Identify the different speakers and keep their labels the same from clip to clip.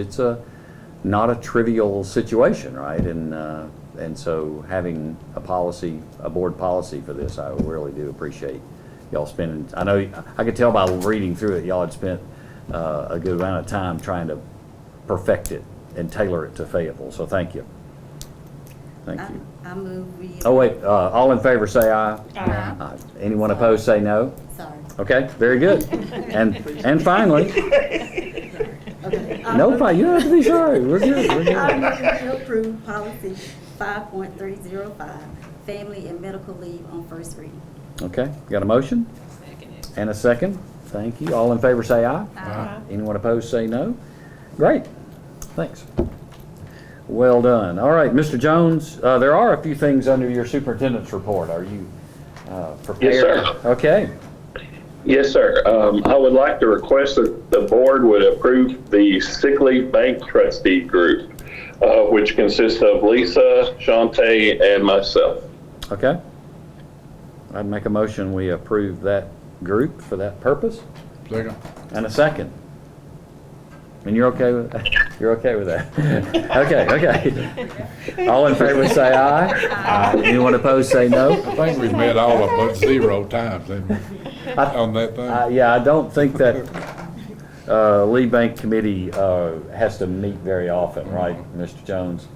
Speaker 1: It's a, not a trivial situation, right? And, uh, and so having a policy, a board policy for this, I really do appreciate y'all spending, I know, I could tell by reading through it, y'all had spent uh, a good amount of time trying to perfect it and tailor it to Fayetteville, so thank you. Thank
Speaker 2: I
Speaker 1: you.
Speaker 2: I move we.
Speaker 1: Oh, wait, uh, all in favor, say aye. Aye. Anyone opposed, say no.
Speaker 2: Sorry.
Speaker 1: Okay, very good. And, and finally,
Speaker 2: Okay.
Speaker 1: no, fi- you don't have to be sorry, we're good, we're good.
Speaker 2: I move to approve policy five point three zero five, family and medical leave on first reading.
Speaker 1: Okay, got a motion? And a second? Thank you. All in favor say aye.
Speaker 2: Aye.
Speaker 1: Anyone opposed say no. Great, thanks. Well done. All right, Mr. Jones, uh, there are a few things under your superintendent's report. Are you uh, prepared?
Speaker 3: sir.
Speaker 1: Okay,
Speaker 3: Yes, sir. Um, I would like to request that the board would approve the sick leave bank trustee group, uh, which consists of Lisa, Shante, and myself.
Speaker 1: okay. I'd make a motion, we approve that group for that purpose.
Speaker 4: Second.
Speaker 1: And a second. And you're okay with that? You're okay with that? Okay, okay. All in favor say aye. Aye. Anyone opposed say
Speaker 4: I
Speaker 1: no.
Speaker 4: think we've met all of but zero times haven't we, on that
Speaker 1: Uh,
Speaker 4: thing.
Speaker 1: Yeah, I don't think that uh, lead bank committee uh, has to meet very often, right, Mr. Jones?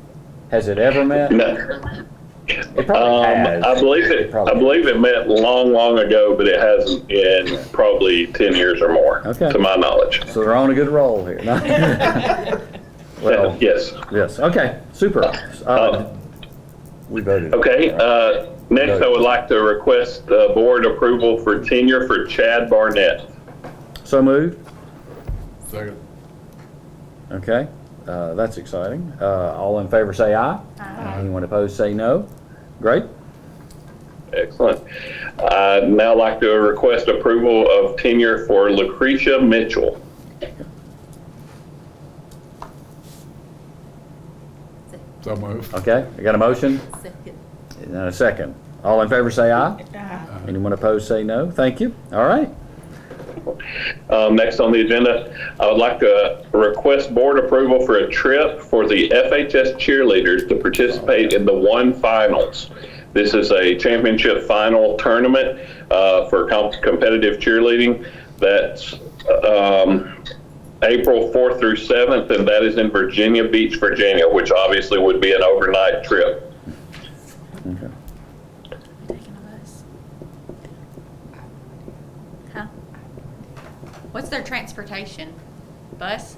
Speaker 1: Has it ever met?
Speaker 3: No,
Speaker 1: It probably
Speaker 3: Um, I
Speaker 1: has.
Speaker 3: believe it, I
Speaker 1: Probably.
Speaker 3: believe it met long, long ago, but it hasn't in probably 10 years or more,
Speaker 1: Okay.
Speaker 3: to my knowledge.
Speaker 1: So they're on a good roll here. Well,
Speaker 3: Yes.
Speaker 1: yes, okay, super. Uh, We voted.
Speaker 3: Okay, uh, next I would like to request, uh, board approval for tenure for Chad Barnett.
Speaker 1: So moved.
Speaker 4: Second.
Speaker 1: Okay, uh, that's exciting. Uh, all in favor say aye. Aye. Anyone opposed say no. Great.
Speaker 3: Excellent. I'd now like to request approval of tenure for Lucretia Mitchell.
Speaker 4: So moved.
Speaker 1: Okay, I got a motion
Speaker 2: Second.
Speaker 1: and a second. All in favor say aye. Anyone opposed say no. Thank you. All right.
Speaker 3: Um, next on the agenda, I would like to request board approval for a trip for the FHS cheerleaders to participate in the one finals. This is a championship final tournament uh, for comp- competitive cheerleading. That's um, April 4th through 7th, and that is in Virginia Beach, Virginia, which obviously would be an overnight trip.
Speaker 1: Okay.
Speaker 5: Huh? What's their transportation? Bus?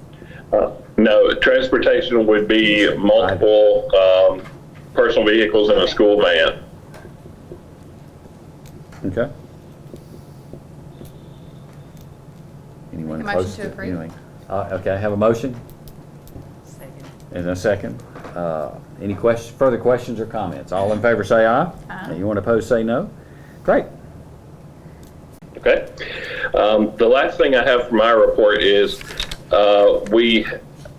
Speaker 3: Uh, No, transportation would be multiple um, personal vehicles and a school van.
Speaker 1: Okay. Anyone
Speaker 5: Make a motion
Speaker 1: opposed
Speaker 5: to
Speaker 1: to
Speaker 5: approve.
Speaker 1: anything? Uh, okay, I have a motion
Speaker 5: Second.
Speaker 1: and a second. Uh, any question, further questions or comments? All in favor say aye.
Speaker 5: Aye.
Speaker 1: Anyone opposed say no. Great.
Speaker 3: Okay. Um, the last thing I have for my report is uh, we,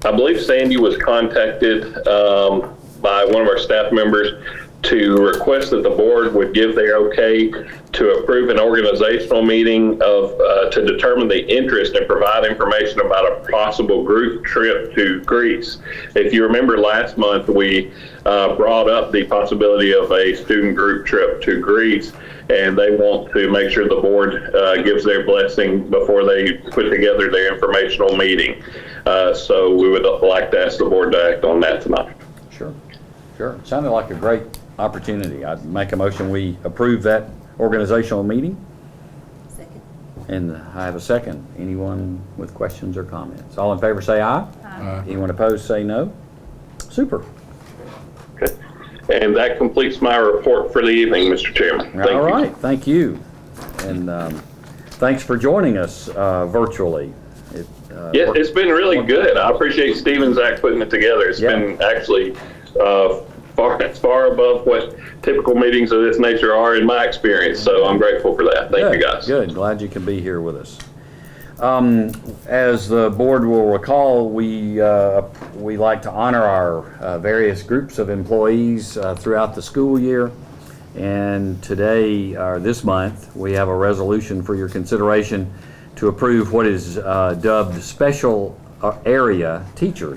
Speaker 3: I believe Sandy was contacted um, by one of our staff members to request that the board would give their okay to approve an organizational meeting of uh, to determine the interest and provide information about a possible group trip to Greece. If you remember last month, we uh, brought up the possibility of a student group trip to Greece and they want to make sure the board uh, gives their blessing before they put together their informational meeting. Uh, So we would like to ask the board to act on that tonight.
Speaker 1: Sure, sure. Sounded like a great opportunity. I'd make a motion, we approve that organizational meeting,
Speaker 2: Second.
Speaker 1: and I have a second. Anyone with questions or comments? All in favor, say aye.
Speaker 4: Aye.
Speaker 1: Anyone opposed, say no. Super.
Speaker 3: Okay. And that completes my report for the evening, Mr. Chairman. Thank
Speaker 1: All
Speaker 3: you.
Speaker 1: right, thank you. And um, thanks for joining us uh, virtually. It, uh,
Speaker 3: Yeah, it's been really good. I appreciate Stevens Act putting it together. It's
Speaker 1: Yeah.
Speaker 3: been actually uh, far, far above what typical meetings of this nature are in my experience, so I'm grateful for that. Thank you,
Speaker 1: Good,
Speaker 3: guys.
Speaker 1: Good, glad you can be here with us. Um, As the board will recall, we, uh, we like to honor our uh, various groups of employees uh, throughout the school year. And today, or this month, we have a resolution for your consideration to approve what is uh, dubbed Special uh, Area Teachers.